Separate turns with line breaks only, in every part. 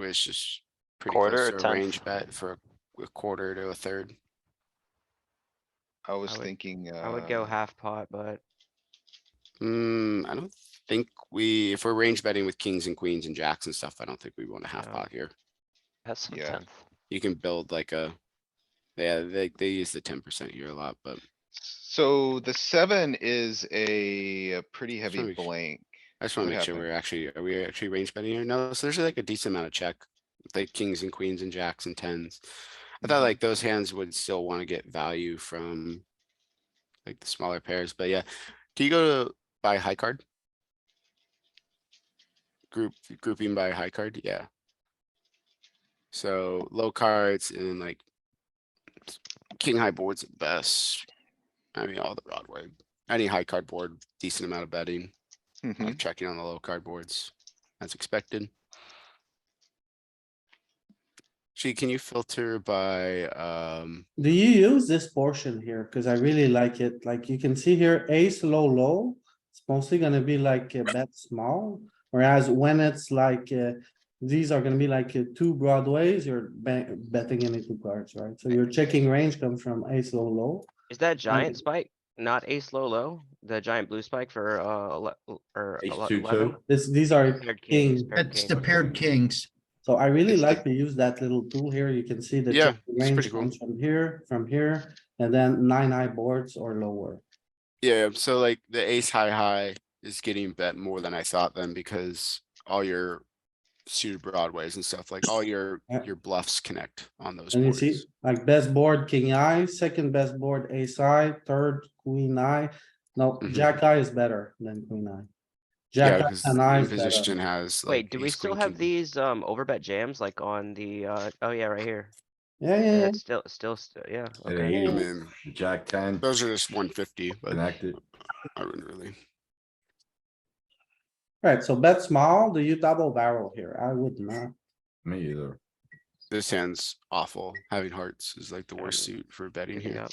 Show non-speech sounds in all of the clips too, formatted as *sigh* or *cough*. which is pretty close
Quarter or
to a
tenth?
range bet for a quarter to a third.
I was
would-
thinking, uh.
I would go half pot, but
Hmm, I don't think we, if we're range betting with kings and queens and jacks and stuff, I don't think we want a half
No.
pot here.
That's some
Yeah.
tenth.
You can build like a, yeah, they, they use the ten percent here a lot, but
So the seven is a a pretty heavy
Sorry.
blank.
I just wanna
What
make sure
happened?
we're actually, are we actually range betting here? No, so there's like a decent amount of check. with, Like kings and queens and jacks and tens. I thought
Mhm.
like those hands would still wanna get value from. Like the smaller pairs, but yeah, do you go to buy high card? Group, grouping by high card, yeah. So low cards and like. King high boards at best. I mean, all the broad way. Any high card board, decent amount of betting.
Mhm.
Mm-hmm.
I'm checking on the low card boards as expected. Gee, can you filter by, um,
Do you use this portion here? Cause I really like it. Like you can see here, ace low, low. It's mostly gonna be like a bet small, whereas when it's like, uh, these are gonna be like uh, two broadways, you're ba- betting any two cards, right? So your checking range comes from ace low, low.
Is that giant
Mhm.
spike not ace low low? The giant blue spike for uh ele- or
Ace
ele-
two,
eleven?
two.
This, these are,
Paired kings,
King.
paired
That's the
kings.
paired kings.
so I really
It's the-
like to use that little tool here. You can see the
Yeah,
checking
it's pretty
range
cool.
comes from here, from here, and then nine high boards or lower.
yeah, so like the ace high high is getting bet more than I thought then because all your suited broadways and stuff, like all your,
*laughs* Yeah.
your bluffs connect on those
And you see,
boards.
like best board, king eye, second best board, ace eye, third, queen eye. No,
Mhm.
jack eye is better than queen eye.
Yeah,
Jack eye
because
and eye
the
is better.
position has. like,
Wait, do we
ace,
still
queen,
have
king.
these um overbet jams like on the uh, oh yeah, right here?
Yeah,
Yeah,
yeah, yeah.
it's still, still, st- yeah,
It
okay.
I
ain't easy.
mean,
Jack ten,
those are just one fifty, but
connected.
I wouldn't really.
Right, so bet small, do you double barrel here? I would not.
Me either.
This hand's awful. Having hearts is like the
Yeah,
worst suit for betting here.
Yeah.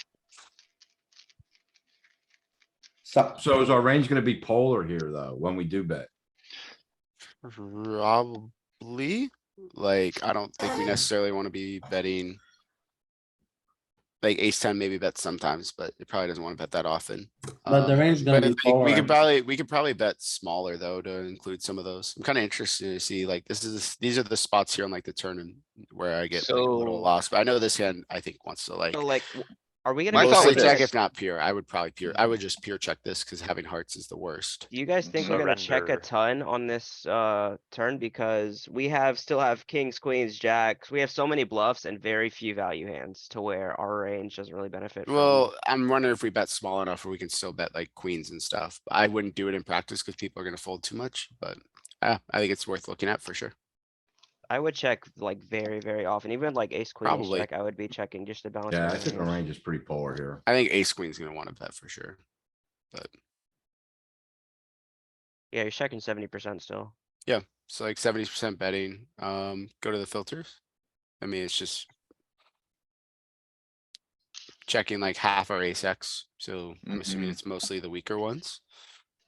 So,
So is our range gonna be polar here though, when we do bet?
Probably, like, I don't think we necessarily wanna be betting. Like ace ten maybe bet sometimes, but it probably doesn't wanna bet that often.
but the
Um, But
range gonna
I
be
think we
polar.
could probably, we could probably bet smaller though to include some of those. I'm kinda interested to see like, this is, these are the spots here on like the turn and where I get like, a
So-
little lost, but I know this hand, I think wants to like.
So like, w- are we gonna?
My
go
thought
Mostly
with
was
check
this?
if not pure. I would probably pure, I would just pure check this cuz having hearts is the worst.
Do you guys think we're gonna check a
Surrender.
ton on this uh turn because we have, still have kings, queens, jacks, we have so many bluffs and very few value hands to where our range doesn't really benefit.
Um,
from-
Well, I'm wondering if we bet small enough where we can still bet like queens and stuff. I wouldn't do it in practice because people are gonna fold too much, but uh, I think it's worth looking at for sure.
I would check like very, very often, even like ace queen,
Probably.
like I would be checking just to balance.
Yeah,
my
I think our
hands.
range is pretty polar here.
I think ace queen's gonna wanna bet for sure.
Yeah, you're checking seventy percent still.
So like seventy percent betting, um, go to the filters. I mean, it's just. Checking like half our ace X, so I'm assuming
Mhm.
it's mostly the weaker ones.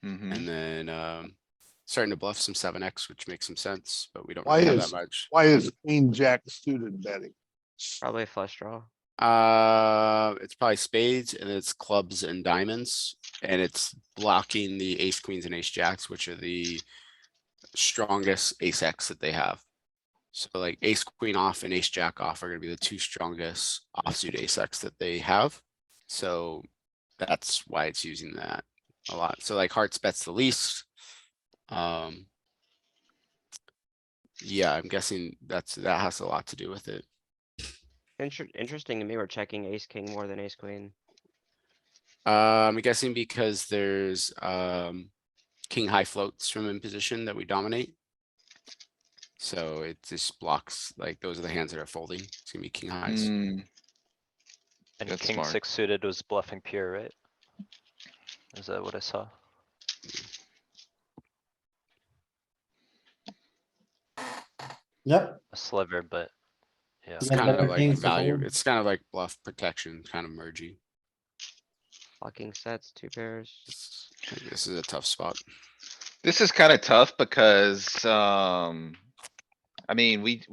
Mm-hmm.
Mhm.
And then, um, starting to bluff some seven X, which makes some sense, but we don't
Why
really have that
is-
much.
Why is queen jack suited betting?
Probably a flush draw.
Uh, it's probably spades and it's clubs and diamonds, and it's blocking the ace queens and ace jacks, which are the strongest ace X that they have. So like ace queen off and ace jack off are gonna be the two strongest offsuit ace X that they have. So that's why it's using that a lot. So like hearts bets the least. Um. Yeah, I'm guessing that's, that has a lot to do with it.
Inter- interesting to me, we're checking ace king more than ace queen.
Uh, I'm guessing because there's, um, king high floats from in position that we dominate. So it just blocks, like, those are the hands that are folding. It's gonna be king highs.
Mm,
And
That's
king
smart.
six suited was bluffing pure, right? Is that what I saw?
Yep,
A sliver, but, yeah.
It's
Yeah,
kind
better
of like
kings to
value,
fold.
it's kind of like bluff protection, kind of mergey.
Blocking sets, two pairs.
It's- I think This is a tough spot.
This is kinda tough because, um, I mean, we,